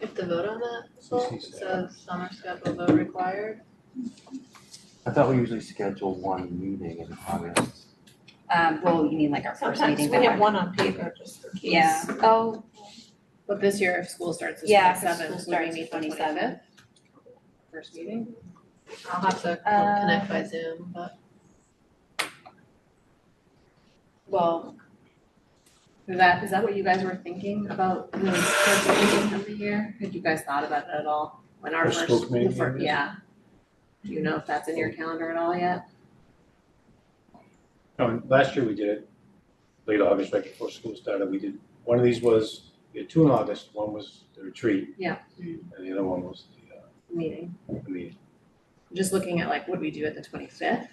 to vote on that, Sol? It says summer schedule vote required. I thought we usually schedule one meeting in August. Um, well, you mean like our first Sometimes meeting we have back? one on paper just for case. Yeah, oh, But this year, if school starts this Yeah, twenty if school seventh, would we starts meet the twenty 27th? seventh? First meeting? I'll have to Uh, co- connect by Zoom, but. Well. Is that, is that what you guys were thinking about the first meeting of the year? Had you guys thought about it at all? When our The first, school the committee first, meeting? yeah. Do you know if that's in your calendar at all yet? Um, last year we did it late August, right before school started, we did, one of these was, we had two in August, one was the retreat. Mm-hmm. Yeah. And the other one was the, uh, Meeting. the meeting. just looking at like, would we do it the twenty-fifth?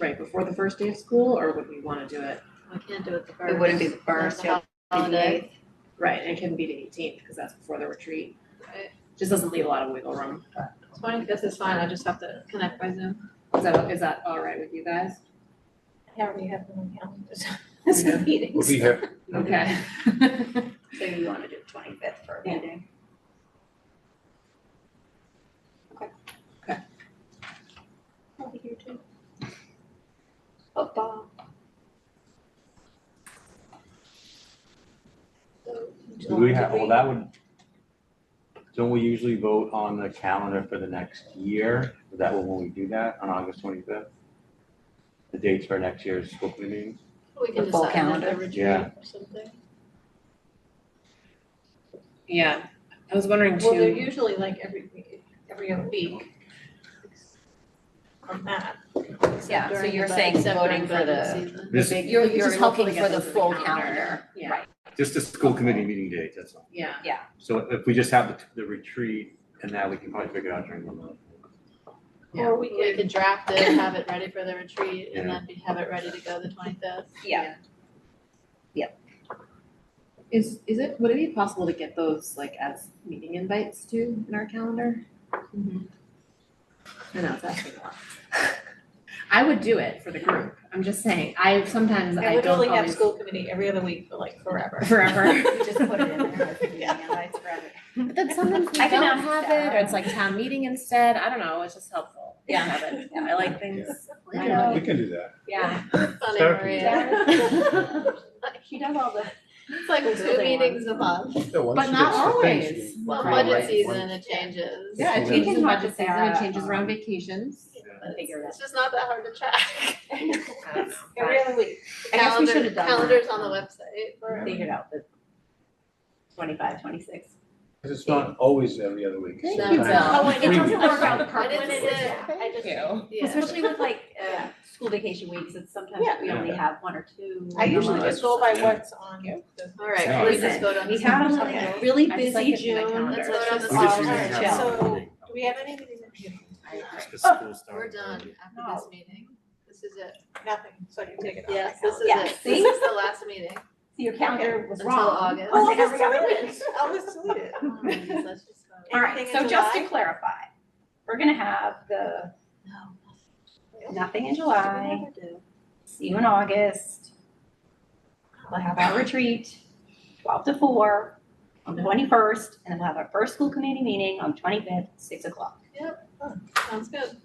Right before the first day of school, or would we wanna do it? We can't do it the first. it wouldn't be the first, it would be the Holiday. eighth. Right, and it can be the eighteenth, cause that's before the retreat. Right. Just doesn't leave a lot of wiggle room. It's fine, this is fine, I just have to connect by Zoom. Is that, is that all right with you guys? I already have them on calendar, as Yeah. meetings. We'll be here, Okay. So you wanna do the twenty-fifth for a Yeah. meeting? Okay. Okay. I'll be here too. Football. Do we have, well, that would, don't we usually vote on the calendar for the next year? Is that when we do that, on August twenty-fifth? The dates for next year's school committee meetings? We can The full decide another calendar? retreat Yeah. or something. Yeah, I was wondering Well, they're too, usually like every week, every other week. On that. Yeah, so during the you're bu- saying except voting during for budget the, season. This, big- you're, You're you're just hopeful looking to for get the those in the full calendar. calendar, Yeah. right, just the school committee meeting date, that's all. yeah, So if we just have the, the retreat and that, we can probably figure it out during the month. Yeah. Or we We could, could draft it, have it ready for the retreat, and then be- have it ready to go the twenty-fifth. yeah, is, is it, would it be possible to get those like as meeting invites too in our calendar? Mm-hmm. I know, it's asking a lot. I would do it for the group, I'm just saying, I sometimes I I would don't only have always. school committee every other week for like forever. Forever. we just put it in there as meeting invites for every- But then sometimes we I can don't ask have Sarah. it, or it's like town meeting instead, I don't know, it's just helpful to Yeah. have it, I like things. Yeah. I know. we can do that. Yeah. Funny, Sarah can Maria. She does all the. It's like two Really meetings a month. Yeah, once But you not get certain things, always. you- Well, Right. budget Right. season, it changes. Yeah, it We changes can in talk budget to season, it Sarah, changes around um, vacations. It's- Figure it It's just not that hard to track. I don't know. Every other week. I guess we Calendar- should have done that. Calendars on the website for. Figured out the twenty-five, twenty-six. 'Cause it's not always every other week. Thank you, Sometimes- Bill. Oh, I and it doesn't work out the But perfect. it's, yeah, I Thank just, you. yeah. Especially with like, uh, Yeah. school vacation weeks, it's sometimes Yeah. we only Yeah. have one or two. I usually that's just go by yeah. what's on the All right, Yeah, can we listen, just vote on We this? had Okay. a really I just like busy it in my June, calendar. let's Let's vote just. on this all one. right, Yeah. chill. So- Do we have anything in the The Oh, school started We're done early. after this meeting. This is it. Nothing, so I can take it off. my Yes, this is calendar. Yeah, it. see? This is the last meeting So your calendar was until wrong. August. Oh, Like, I'll just every other delete week. it. I'll just delete it. Oh, geez, let's just vote. All right, Anything in so just to July? clarify, we're gonna have the No. nothing in We July, never do. see you in August. We'll have our retreat, twelve to four, on the twenty-first, and then we'll have our first school committee meeting on twenty-fifth, six o'clock. Sounds good.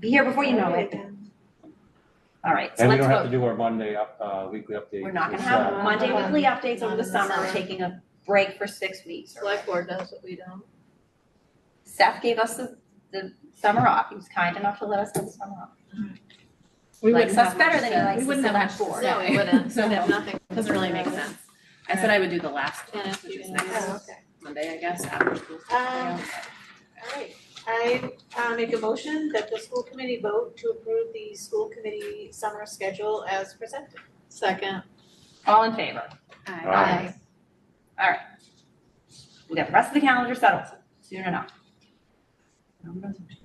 Be here before you know it. All right, so And we let's don't have to vote. do our Monday, up- uh, weekly update. We're not gonna It's, have uh, Monday Not weekly updates Not over in the the summer, we're summer. taking a break for six weeks. or Select board does what we don't. Seth gave us the, the summer off, he was kind enough to let us have the summer off. We Likes wouldn't us have better much than to- he likes we us wouldn't have select much to board. No, say. we wouldn't. So We have no, nothing. doesn't really make sense. I said I would do the last one, Kenneth, which you is can- Oh, next okay. Monday, I guess, after school. Um, all right, I uh make a motion that the school committee vote to approve the school committee summer schedule as presented. Second. All in favor? Aye. We got the rest of the calendar settled soon enough.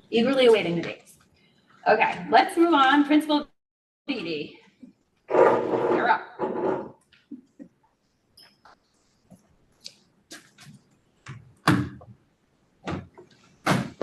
Eagerly awaiting the dates. Okay, let's move on, Principal BD.